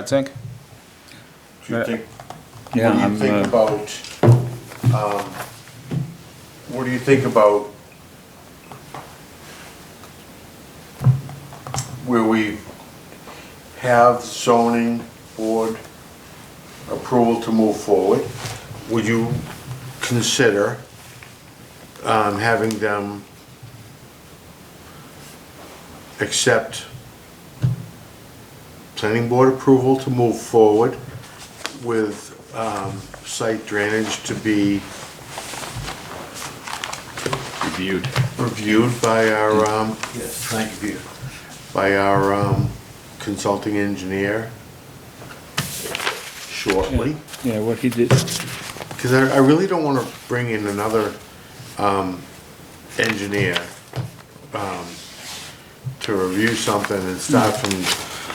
I think. Do you think, Yeah, what do I'm, you think uh, about, um, what do you think about where we have zoning board approval to move forward? Would you consider, um, having them accept planning board approval to move forward with um, site drainage to be Reviewed. reviewed by our, um, Yes, thank you, Peter. by our um, consulting engineer shortly. Yeah, what he did, Because I I really don't want to bring in another um, engineer um, to review something and start from,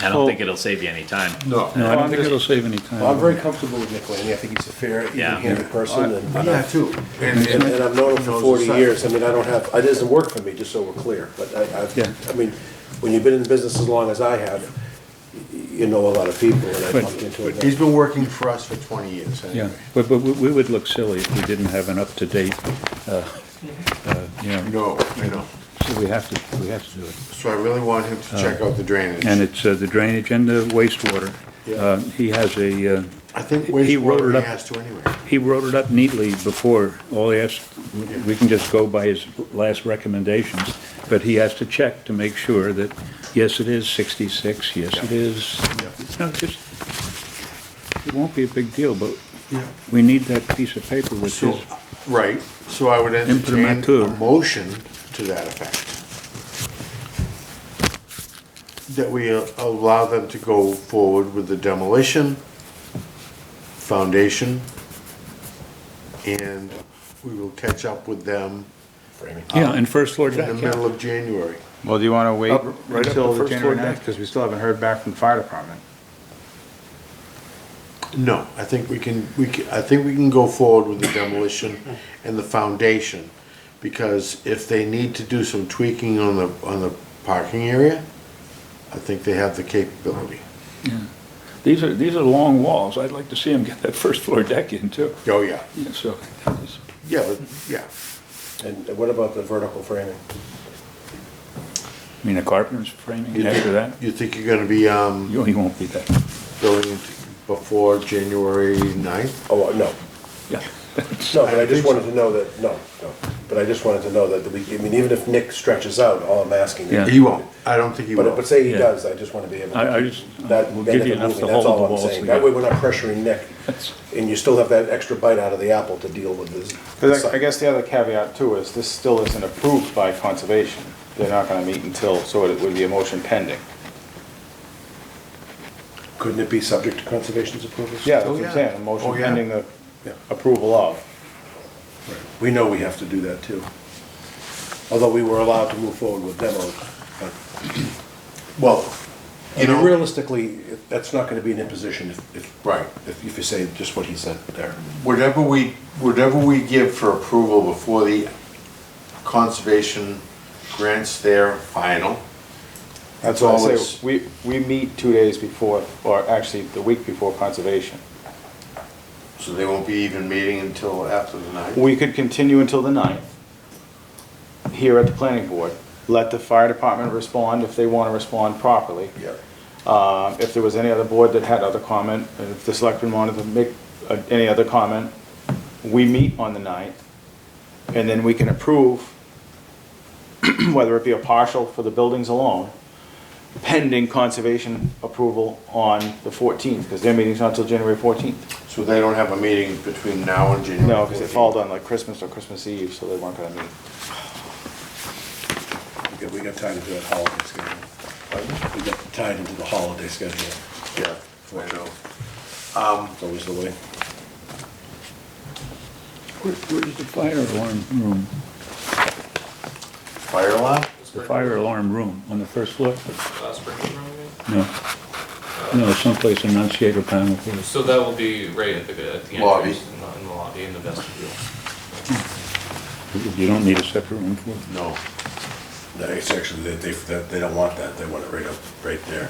I don't think it'll save you any time. no. no, I don't think it'll save any time. Well, I'm very comfortable with Nick Laney. I think he's a fair, Yeah. even-handed person, and, Yeah, too. and- and I've known him for Knows the forty site. years. I mean, I don't have, it doesn't work for me, just so we're clear, but I, Yeah. I, I mean, when you've been in business as long as I have, y- you know a lot of people, and I But- bumped into him. He's been working for us for 20 years Yeah, anyway. but, but we- we would look silly if we didn't have an up-to-date, uh, uh, you know, No, I know. so we have to, we have to do it. So I really want him to check out the drainage. And it's uh, the drainage and the wastewater. Yeah. Uh, He has a, uh, I think He wrote it wastewater up. has to anyway. he wrote it up neatly before, all he asked, we can just go by his last recommendations, but he has to check to make sure that, yes, it is 66, yes, it is. No, just, it won't be a big deal, but we need that piece of paper which So, is, right, so I would entertain a Imprimatur. motion to that effect. That we uh, allow them to go forward with the demolition, foundation, and we will catch up with them yeah, and first floor in the deck, yeah. middle of January. Well, do you want to wait Up- right up until the first floor January deck. ninth? Because we still haven't heard back from the fire department. No, I think we can, we can, I think we can go forward with the demolition and the foundation. Because if they need to do some tweaking on the, on the parking area, I think they have the capability. These are, these are long walls, I'd like to see him get that first floor deck in too, Oh, yeah. Yeah, so. Yeah, but, yeah. And what about the vertical framing? I mean, a carpenter's framing You after think- that, You think you're gonna be, um, you you won't be that, building before January ninth? Oh, no, yeah. no, but I think just so. wanted to know that, no, no, but I just wanted to know that we, I mean, even if Nick stretches out, all I'm asking. is- Yeah. He won't. I don't think he But, but will. say he Yeah. does, I just want to be able to. I- I just- that- we'll that give you at the enough moving, to that's hold all the I'm walls saying. together. That way we're not pressuring Nick, That's- and you still have that extra bite out of the apple to deal with this. Because I guess the other caveat too is this still isn't approved by conservation. They're not going to meet until, so it would be a motion pending. Couldn't it be subject to conservation's approval? Yeah, that's Oh, what yeah. I'm saying, a motion Oh, yeah. pending the Yeah. approval of. We know we have to do that too. Although we were allowed to move forward with demo, but, well, I You know- mean, realistically, that's not going to be an imposition if, if. Right. If if you say just what he said there. Whatever we, whatever we give for approval before the conservation grants their final, That's So all I it's- say, we, we meet two days before, or actually the week before conservation. so they won't be even meeting until after the ninth. We could continue until the ninth here at the planning board. Let the fire department respond if they want to respond properly. Yeah. Uh, If there was any other board that had other comment, and if the selectmen wanted to make uh, any other comment, we meet on the ninth, and then we can approve, whether it be a partial for the buildings alone, pending conservation approval on the 14th, because their meeting's not until January 14th. So they don't have a meeting between now and January? No, because it 14th? followed on like Christmas or Christmas Eve, so they weren't gonna meet. We got- We got tied into that holiday schedule. We got tied into the holiday schedule. Yeah, I know. It's always the way. Where- Where's the fire alarm room? Fire alarm? The fire alarm room on the first floor? Uh, Springer's Room, you No. No, someplace enunciator panel. mean? So that will be right at the, at the Lobby. entrance, in the- in the lobby, in the vestibule. You don't need a separate room for it. No. That it's actually, they, they, that- they don't want that, they want it right up, right there.